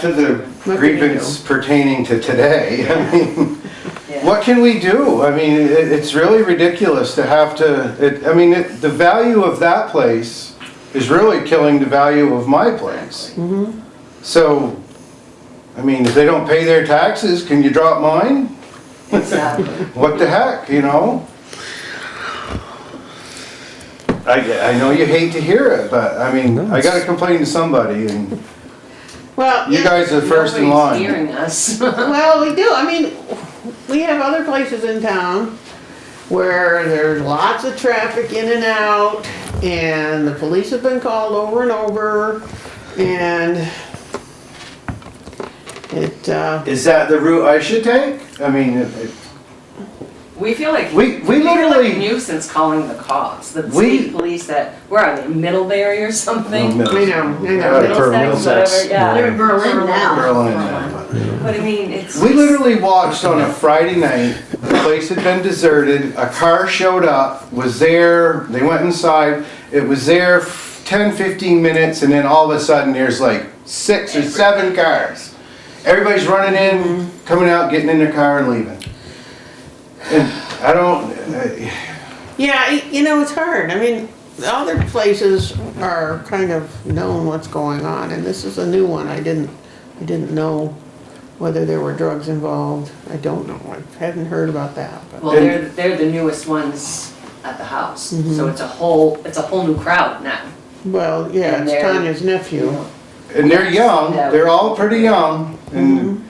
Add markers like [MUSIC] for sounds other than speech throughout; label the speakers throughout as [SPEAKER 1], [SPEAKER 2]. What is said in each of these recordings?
[SPEAKER 1] to the
[SPEAKER 2] do?
[SPEAKER 1] grievance pertaining to today, [LAUGHS] I mean,
[SPEAKER 3] Yeah.
[SPEAKER 1] what can we do? I mean, it, it's really ridiculous to have to, it, I mean, it, the value of that place is really killing the value of my place.
[SPEAKER 3] Mm-hmm.
[SPEAKER 1] So, I mean, if they don't pay their taxes, can you drop mine?
[SPEAKER 3] Exactly.
[SPEAKER 1] What the heck, you know? I, I know you hate to hear it, but I mean, I gotta complain to somebody and
[SPEAKER 2] Well,
[SPEAKER 1] you guys are first in
[SPEAKER 3] Nobody's
[SPEAKER 1] line.
[SPEAKER 3] Hearing us. [LAUGHS]
[SPEAKER 2] well, we do, I mean, we have other places in town where there's lots of traffic in and out, and the police have been called over and over, and it, uh,
[SPEAKER 1] Is that the route I should take? I mean, it- it-
[SPEAKER 3] We feel like.
[SPEAKER 1] We- we
[SPEAKER 3] feel like a
[SPEAKER 1] literally-
[SPEAKER 3] Nuisance calling the cops, the
[SPEAKER 1] We-
[SPEAKER 3] state police that, we're on the Middlebury or something.
[SPEAKER 1] No,
[SPEAKER 2] I know, I
[SPEAKER 1] Yeah,
[SPEAKER 2] know.
[SPEAKER 1] for
[SPEAKER 3] Middlesex,
[SPEAKER 1] Middlesex.
[SPEAKER 3] whatever, yeah.
[SPEAKER 4] They're in Berlin now.
[SPEAKER 1] Berlin, yeah.
[SPEAKER 3] But I mean, it's.
[SPEAKER 1] We literally watched on a Friday night, the place had been deserted, a car showed up, was there, they went inside, it was there f- 10, 15 minutes, and then all of a sudden, there's like six or seven cars. Everybody's running in,
[SPEAKER 2] Mm-hmm.
[SPEAKER 1] coming out, getting in their car and leaving. And I don't, I-
[SPEAKER 2] Yeah, y- you know, it's hard, I mean, the other places are kind of knowing what's going on, and this is a new one, I didn't, I didn't know whether there were drugs involved, I don't know, I haven't heard about that, but.
[SPEAKER 3] Well, they're, they're the newest ones at the house,
[SPEAKER 1] Mm-hmm.
[SPEAKER 3] so it's a whole, it's a whole new crowd now.
[SPEAKER 2] Well, yeah,
[SPEAKER 3] And
[SPEAKER 2] it's
[SPEAKER 3] they're-
[SPEAKER 2] Tanya's nephew.
[SPEAKER 1] and they're young,
[SPEAKER 3] Yeah.
[SPEAKER 1] they're all pretty young, and,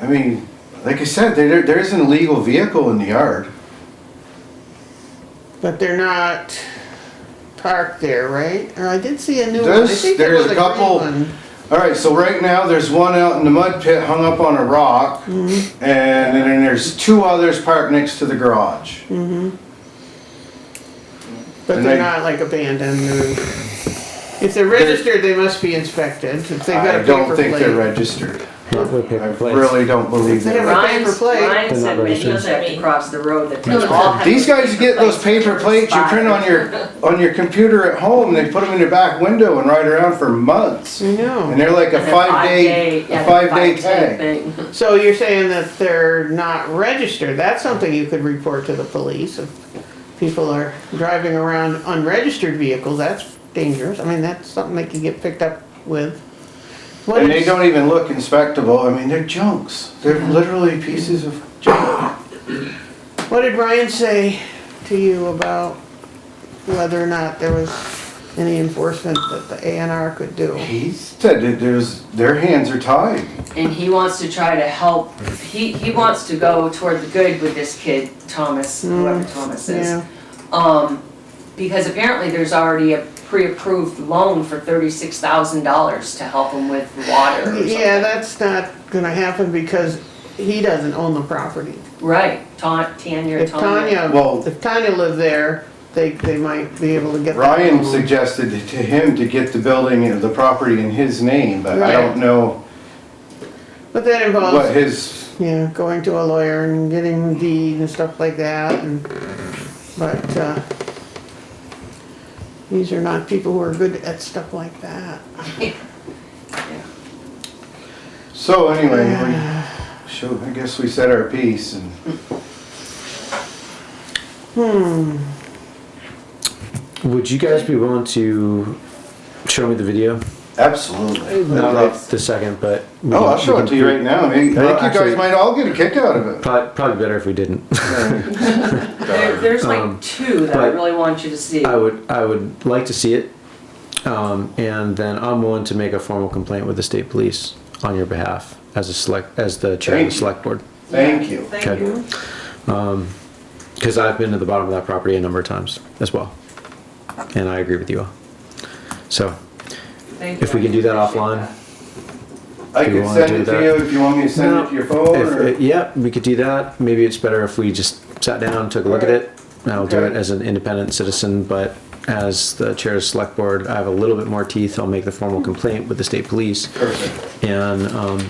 [SPEAKER 1] I mean, like I said, there, there isn't a legal vehicle in the yard.
[SPEAKER 2] But they're not parked there, right? Or I did see a new one. I
[SPEAKER 1] There's-
[SPEAKER 2] think there
[SPEAKER 1] there's
[SPEAKER 2] was
[SPEAKER 1] a
[SPEAKER 2] green
[SPEAKER 1] couple-
[SPEAKER 2] one.
[SPEAKER 1] All right, so right now there's one out in the mud pit hung up on a rock, and then there's two others parked next to the garage.
[SPEAKER 2] But
[SPEAKER 1] and
[SPEAKER 2] they're
[SPEAKER 1] they-
[SPEAKER 2] not like abandoned or, if they're registered, they must be inspected, if they've got a
[SPEAKER 1] I
[SPEAKER 2] paper plate.
[SPEAKER 1] don't think they're registered.
[SPEAKER 5] Not with
[SPEAKER 1] I
[SPEAKER 5] paper plates.
[SPEAKER 1] really don't believe
[SPEAKER 2] They
[SPEAKER 1] that.
[SPEAKER 2] have
[SPEAKER 3] Ryan,
[SPEAKER 2] paper plate.
[SPEAKER 3] Ryan
[SPEAKER 5] They're
[SPEAKER 3] said
[SPEAKER 5] not
[SPEAKER 3] when he lived
[SPEAKER 5] registered.
[SPEAKER 3] across the road that they
[SPEAKER 4] No,
[SPEAKER 3] all had.
[SPEAKER 1] These guys get those paper plates you
[SPEAKER 3] Spot.
[SPEAKER 1] print on your, on your computer at home, they put them in your back window and ride around for months.
[SPEAKER 2] I know.
[SPEAKER 1] And they're like a
[SPEAKER 3] And a
[SPEAKER 1] five-day,
[SPEAKER 3] yeah,
[SPEAKER 1] a
[SPEAKER 3] the
[SPEAKER 1] five-day
[SPEAKER 3] five-day
[SPEAKER 1] tag.
[SPEAKER 3] thing.
[SPEAKER 2] So you're saying that they're not registered, that's something you could report to the police if people are driving around unregistered vehicles, that's dangerous, I mean, that's something they could get picked up with. What
[SPEAKER 1] And they
[SPEAKER 2] is-
[SPEAKER 1] don't even look inspectable, I mean, they're junks, they're literally pieces of junk.
[SPEAKER 2] What did Ryan say to you about whether or not there was any enforcement that the A and R could do?
[SPEAKER 1] He said that there's, their hands are tied.
[SPEAKER 3] And he wants to try to help, he, he wants to go toward the good with this kid, Thomas, whoever Thomas is.
[SPEAKER 2] Mm, Yeah,
[SPEAKER 3] Um, because apparently there's already a pre-approved loan for thirty-six thousand dollars to help him with water
[SPEAKER 2] [LAUGHS]
[SPEAKER 3] or
[SPEAKER 2] yeah,
[SPEAKER 3] something.
[SPEAKER 2] that's not gonna happen because he doesn't own the property.
[SPEAKER 3] Right, Ta- Tanya,
[SPEAKER 2] If
[SPEAKER 3] Tanya.
[SPEAKER 2] Tanya,
[SPEAKER 1] Well-
[SPEAKER 2] if Tanya lived there, they, they might be able to get. that
[SPEAKER 1] Ryan
[SPEAKER 2] loan.
[SPEAKER 1] suggested to him to get the building, the property in his name, but I
[SPEAKER 2] Right.
[SPEAKER 1] don't know
[SPEAKER 2] But that
[SPEAKER 1] what
[SPEAKER 2] involves,
[SPEAKER 1] his,
[SPEAKER 2] yeah, going to a lawyer and getting the deed and stuff like that and, but, uh, these are not people who are good at stuff like that.
[SPEAKER 1] so anyway, we, sure, I guess we said our piece and.
[SPEAKER 5] Would you guys be willing to show me the video?
[SPEAKER 1] Absolutely.
[SPEAKER 5] Not up the second, but. we
[SPEAKER 1] Oh,
[SPEAKER 5] can-
[SPEAKER 1] I'll show
[SPEAKER 5] we
[SPEAKER 1] it
[SPEAKER 5] can
[SPEAKER 1] to you right now, uh, I mean, I
[SPEAKER 5] I think
[SPEAKER 1] think you
[SPEAKER 5] actually-
[SPEAKER 1] guys might all get a kick out of [LAUGHS] it.
[SPEAKER 5] Probably, probably better if we didn't. [LAUGHS]
[SPEAKER 3] There, there's
[SPEAKER 5] Um,
[SPEAKER 3] like two that I
[SPEAKER 5] but-
[SPEAKER 3] really want you to see.
[SPEAKER 5] I would, I would like to see it. Um, and then I'm willing to make a formal complaint with the state police on your behalf as a select, as the chair of
[SPEAKER 1] Thank
[SPEAKER 5] the
[SPEAKER 1] you.
[SPEAKER 5] select board.
[SPEAKER 1] Thank you.
[SPEAKER 3] Thank
[SPEAKER 5] Okay.
[SPEAKER 3] you.
[SPEAKER 5] Um, cause I've been to the bottom of that property a number of times as well. And I agree with you all. So
[SPEAKER 3] Thank you.
[SPEAKER 5] if we can do that
[SPEAKER 3] I appreciate
[SPEAKER 5] offline.
[SPEAKER 3] that.
[SPEAKER 1] I
[SPEAKER 5] Do you
[SPEAKER 1] could
[SPEAKER 5] wanna
[SPEAKER 1] send
[SPEAKER 5] do
[SPEAKER 1] it to
[SPEAKER 5] that?
[SPEAKER 1] you if you want me to send it to your phone
[SPEAKER 5] If-
[SPEAKER 1] or.
[SPEAKER 5] uh, yeah, we could do that. Maybe it's better if we just sat down, took a look at
[SPEAKER 1] Alright.
[SPEAKER 5] it. And I'll do
[SPEAKER 1] Okay.
[SPEAKER 5] it as an independent citizen, but as the chair of select board, I have a little bit more teeth. I'll make the formal complaint with the state police.
[SPEAKER 1] Perfect.
[SPEAKER 5] And um,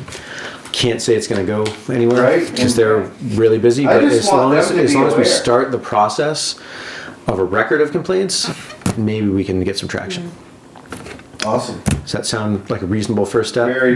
[SPEAKER 5] can't say it's going to go anywhere
[SPEAKER 1] Right.
[SPEAKER 5] because they're really busy.
[SPEAKER 1] I
[SPEAKER 5] But
[SPEAKER 1] just
[SPEAKER 5] as
[SPEAKER 1] want
[SPEAKER 5] long
[SPEAKER 1] them
[SPEAKER 5] as,
[SPEAKER 1] to
[SPEAKER 5] as
[SPEAKER 1] be
[SPEAKER 5] long as we
[SPEAKER 1] aware.
[SPEAKER 5] start the process of a record of complaints, maybe we can get some traction.
[SPEAKER 1] Awesome.
[SPEAKER 5] Does that sound like a reasonable first step?
[SPEAKER 1] Very